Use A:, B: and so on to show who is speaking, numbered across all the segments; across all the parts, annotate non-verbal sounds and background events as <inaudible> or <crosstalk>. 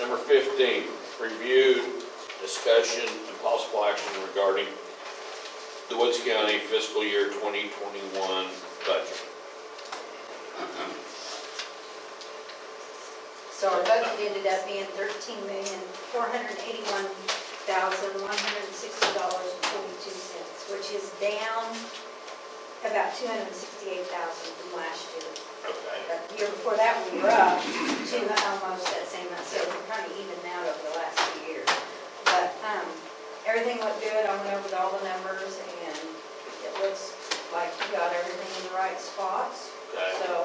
A: Number 15, review, discussion, and possible action regarding the Woods County fiscal year 2021 budget.
B: So our budget ended up being thirteen million, four hundred eighty-one thousand, one hundred sixty dollars and forty-two cents, which is down about two hundred sixty-eight thousand from last year.
A: Okay.
B: The year before that, we were up to almost that same amount, so we're kind of even out over the last few years. But, um, everything looked good, I went over all the numbers, and it looks like you got everything in the right spots.
A: Okay.
B: So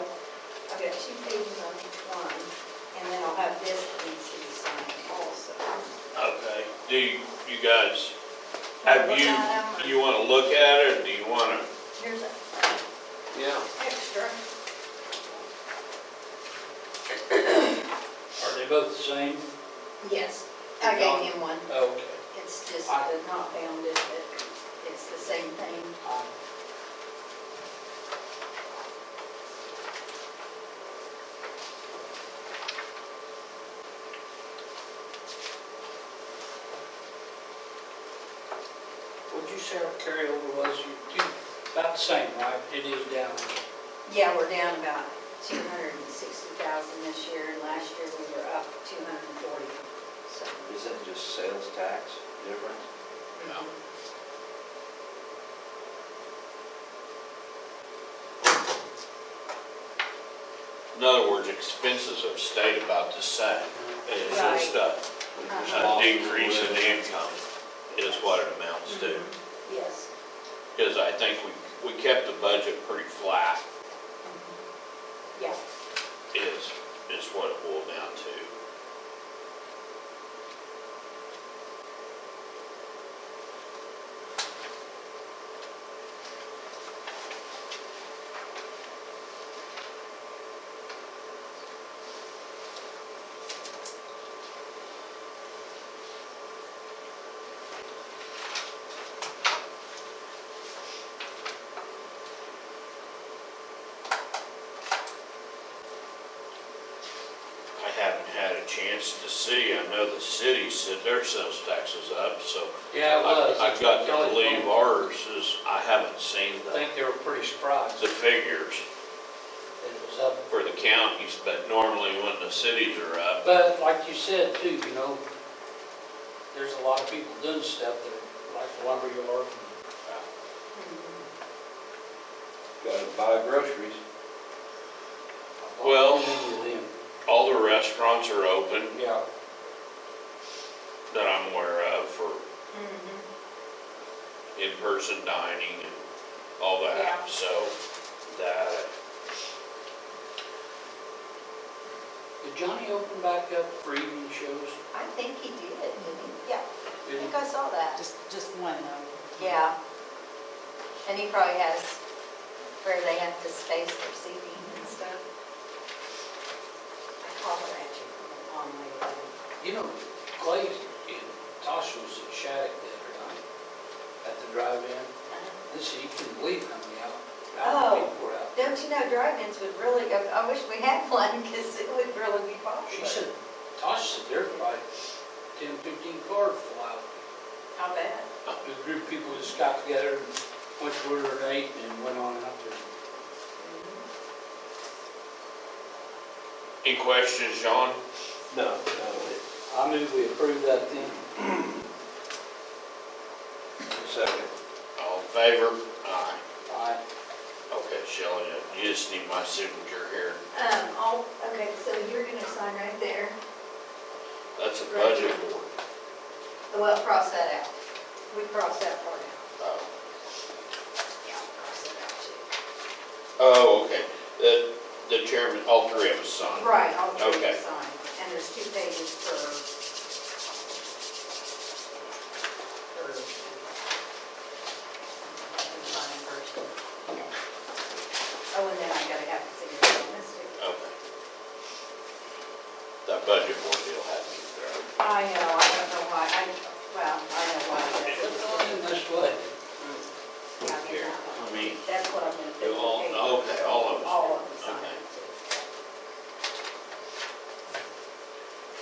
B: I've got two pages on each one, and then I'll have this that needs to be signed also.
A: Okay. Do you you guys, have
B: Look at 'em.
A: you, you want to look at it, or do you want to?
B: Here's an
A: Yeah.
B: extra.
C: Are they both the same? Oh,
B: Yes, I gave him one.
C: Okay.
B: It's just the not bounded, but it's the same thing.
C: Would you say our carryover was, you- you- about the same, right? It is down.
B: Yeah, we're down about two hundred and sixty thousand this year, and last year we were up two hundred and forty, so.
D: Is that just sales tax difference?
B: Mm-hmm.
A: In other words, expenses have stayed about the same. It's
B: Right.
A: just a
B: Uh-huh.
A: a decrease in the income is what it amounts to.
B: Mm-hmm. Yes.
A: Because I think we, we kept the budget pretty flat
B: Yeah.
A: is, is what it boiled down to. I haven't had a chance to see, I know the city said their sales tax is up, so
C: Yeah, it
A: I-
C: was.
A: I've got to
C: Kelly's
A: believe
C: one.
A: ours is, I haven't seen
C: I
A: the,
C: think they were pretty surprised
A: the
C: that
A: figures
C: it was up.
A: for the counties, but normally when the cities are up,
C: But like you said too, you know, there's a lot of people doing stuff that, like the lumber yard.
B: Mm-hmm.
D: Gotta buy groceries.
A: Well-
C: Many of them.
A: all the restaurants are open
C: Yeah.
A: that I'm aware of for
B: Mhm.
A: in-person dining and all
B: Yeah.
A: that, so that,
C: Did Johnny open back up for evening shows?
B: I think he did, didn't he? Yeah, I
C: Did he?
B: think I saw that.
E: Just, just one though.
B: Yeah. And he probably has where they have to space their seating and stuff. I called her at you on my way.
C: You know, Clay and Tasha was at Shattuck the other night at the drive-in.
B: Uh,
C: This, you couldn't believe how many out, how many
B: Oh.
C: people were out. there.
B: Don't you know, drive-ins would really, I I wish we had <laughs> one because it would really be popular.
C: She said, Tasha said there were probably 10, 15 cars full out.
B: How bad?
C: A group of people just got together and went to order an eight and went on out there. Mm-hmm.
A: any questions, John?
C: No, no. I move we approve that then.
D: Second.
A: All in favor? Aye.
C: Aye.
A: Okay, Shelley, you just need my signature here.
B: Um, oh, okay, so you're gonna sign right there.
A: That's a budget board.
B: Well, cross that out. We cross that part out.
A: Oh.
B: Yeah, I'll cross that out too.
A: Oh, okay. The, the chairman, all three of us signed.
B: Right, I'll do the
A: Okay.
B: sign. And there's two pages per Oh, and then I gotta have to see your signature.
A: Okay. That budget board deal happened there.
B: I know, I